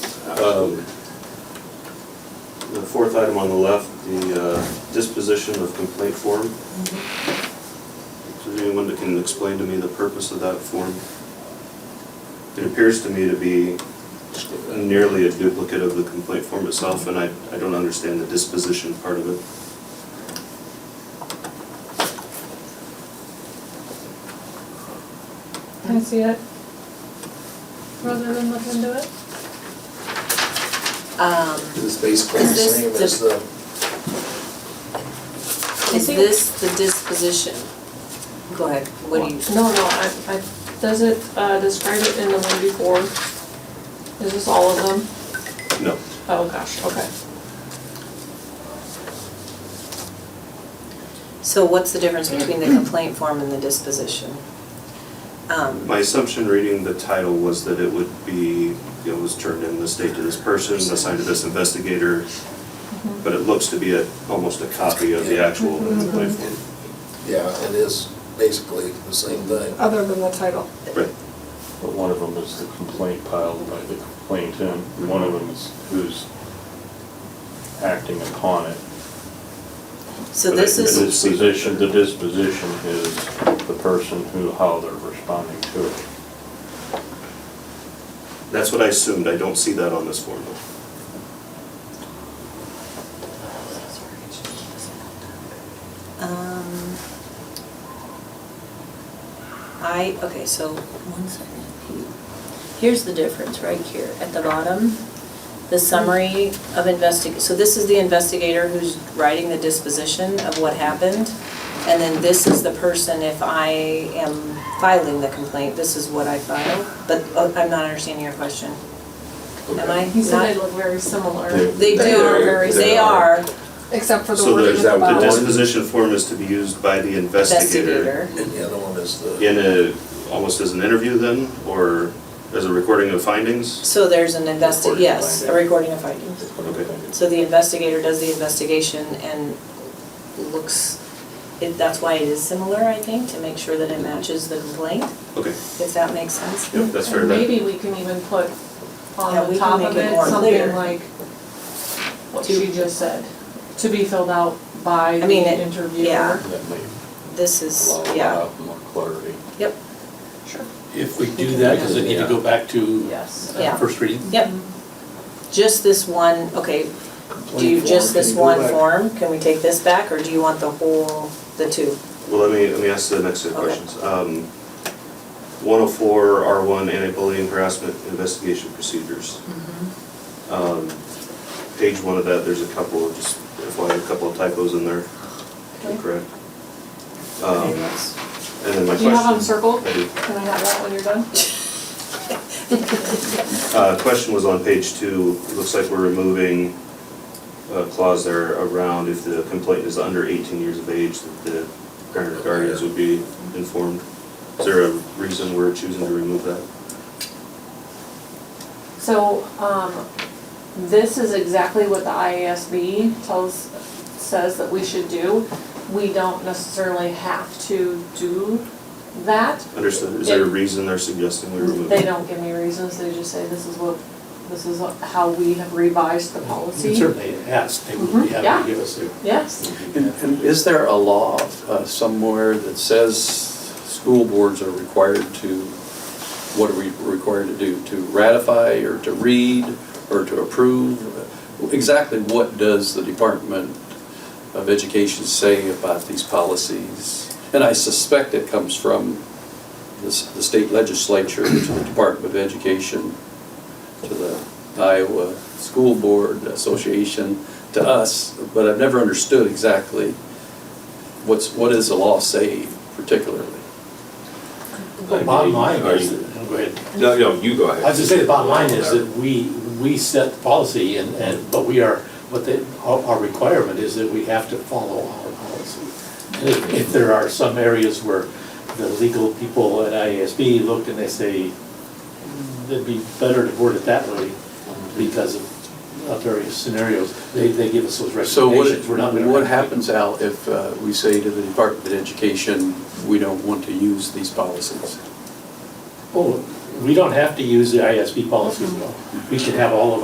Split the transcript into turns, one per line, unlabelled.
Um, The fourth item on the left, the uh, disposition of complaint form. Is there anyone that can explain to me the purpose of that form? It appears to me to be nearly a duplicate of the complaint form itself, and I, I don't understand the disposition part of it.
Can I see it? Rather than look into it?
Um,
It's basically the
Is
same
this
as the,
I
is
think-
this the disposition? Go ahead, what do you?
No, no, I, I, does it, uh, describe it in the one before? Is this all of them?
No.
Oh, gosh, okay.
So what's the difference between the complaint form and the disposition? Um,
My assumption reading the title was that it would be, it was turned in this date to this person, assigned to this investigator, but it looks to be a, almost a copy of the actual complaint form.
yeah, it is basically the same thing.
Other than the title.
Right.
But one of them is the complaint piled by the complainant, and one of them is who's acting upon it.
So this
The
is,
Disposition, the disposition is the person who, how they're responding to it.
That's what I assumed, I don't see that on this form though.
um, I, okay, so, one second.
Here's the difference right here at the bottom. The summary of investig, so this is the investigator who's writing the disposition of what happened. And then this is the person, if I am filing the complaint, this is what I file. But uh, I'm not understanding your question. Am I
He said they
not?
look very similar.
They do, they are
Except for the
So
wording
the,
at the
the
bottom.
disposition form is to be used by the investigator
investigator.
And the other one is the,
in a, almost as an interview then, or as a recording of findings?
So there's an investi,
Recording
yes, a
finding.
recording of findings.
Okay.
So the investigator does the investigation and looks, it- that's why it is similar, I think, to make sure that it matches the complaint,
Okay,
if that makes sense.
yep, that's fair.
And
That-
maybe we can even put
Yeah,
on
we can
the top
make
of
it
it
more
something
clear.
like what
To-
she just said, to be filled out by the
mean, it-
interviewer.
yeah.
That may
This is,
allow a
yeah,
lot more clarity.
yep,
Sure.
If we do that, does it need to go back to
Yes.
uh,
Yeah.
first reading?
yep. Just this one, okay, do you,
Complaint
just
form, can
this
you go
one
back?
form? Can we take this back, or do you want the whole, the two?
Well, let me, let me ask the next set of
Okay.
questions. Um, 104, R1, anti-bullying harassment investigation procedures.
Mm-hmm.
Um, Page one of that, there's a couple, of just FYI, a couple of typos in there,
Okay.
correct? Um,
Okay, yes.
And then my question.
Do you have them circled?
I do.
Can I have that when you're done?
Uh, Question was on page two, it looks like we're removing a clause there around if the complaint is under 18 years of age, that the parent or guardians would be informed. Is there a reason we're choosing to remove that?
So, um, this is exactly what the IASB tells, says that we should do. We don't necessarily have to do that.
Understood, is there a reason they're suggesting we remove
They
it?
don't give me reasons, they just say this is what, this is how we have revised the
We
policy.
Certainly ask, they would be
Mhm, yeah.
happy to give us a.
Yes,
And and is there a law uh, somewhere that says school boards are required to, what are we required to do? To ratify or to read or to approve? Exactly what does the Department of Education say about these policies? And I suspect it comes from the s- the state legislature to the Department of Education, to the Iowa School Board Association, to us, but I've never understood exactly what's, what does the law say particularly?
The bottom line
Are
is,
you-
that- go ahead.
No, no, you go
I
ahead.
was gonna say, the bottom line is that we, we set the policy and, and, but we are, what the, our our requirement is that we have to follow our policy. And if, if there are some areas where the legal people at IASB look and they say, it'd be better to word it that way because of of various scenarios, they, they give us those
So
recommendations. We're not
what,
gonna-
what happens, Al, if uh, we say to the Department of Education, we don't want to use these policies?
Oh, we don't have to use the ISB policies at all. We can have all of